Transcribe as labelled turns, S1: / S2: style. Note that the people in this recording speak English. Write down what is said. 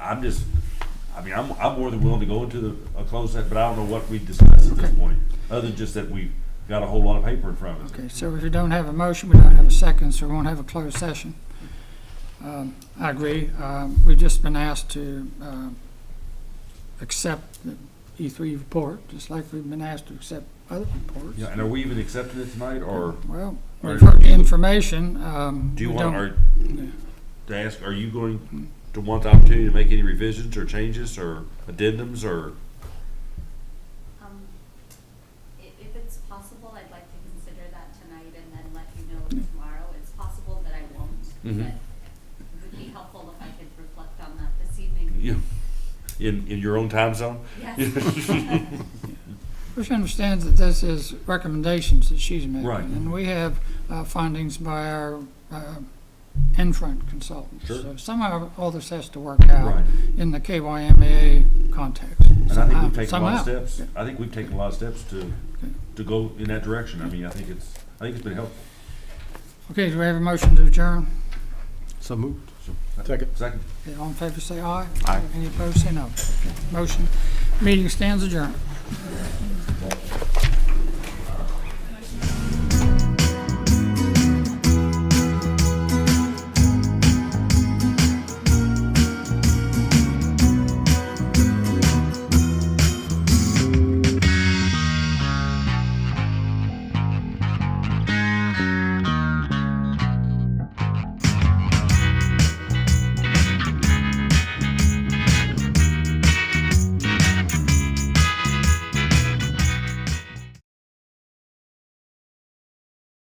S1: I'm just, I mean, I'm, I'm more than willing to go into the, a closed set, but I don't know what we discussed at this point, other than just that we've got a whole lot of paper in front of us.
S2: Okay, so if we don't have a motion, we don't have a second, so we won't have a closed session. Um, I agree. Um, We've just been asked to um, accept the E3 report, just like we've been asked to accept other reports.
S1: Yeah, and are we even accepting it tonight, or
S2: Well,
S1: Or
S2: we've heard
S1: do
S2: the
S1: you-
S2: information. um,
S1: do you
S2: we
S1: want,
S2: don't-
S1: are, to ask, are you going to want the opportunity to make any revisions or changes or addendums or?
S3: Um, i- if it's possible, I'd like to consider that tonight and then let you know tomorrow. It's possible that I won't,
S1: Mhm.
S3: but it would be helpful if I could reflect on that this evening.
S1: Yeah. In, in your own time zone?
S3: Yes.
S2: Which understands that this is recommendations that she's making.
S1: Right.
S2: And we have uh, findings by our uh, in-front consultants.
S1: Sure.
S2: So somehow all this has to work out
S1: Right.
S2: in the KYMEA context. Um,
S1: And I think we've taken a lot of
S2: Somehow.
S1: steps, I think we've taken a lot of steps to, to go in that direction, I mean, I think it's, I think it's been helpful.
S2: Okay, do we have a motion to adjourn?
S4: So moved.
S1: So,
S4: Second.
S1: Second.
S2: Okay, All in favor, say aye.
S4: Aye.
S2: Any opposed, say no. Okay, Motion, meeting stands adjourned.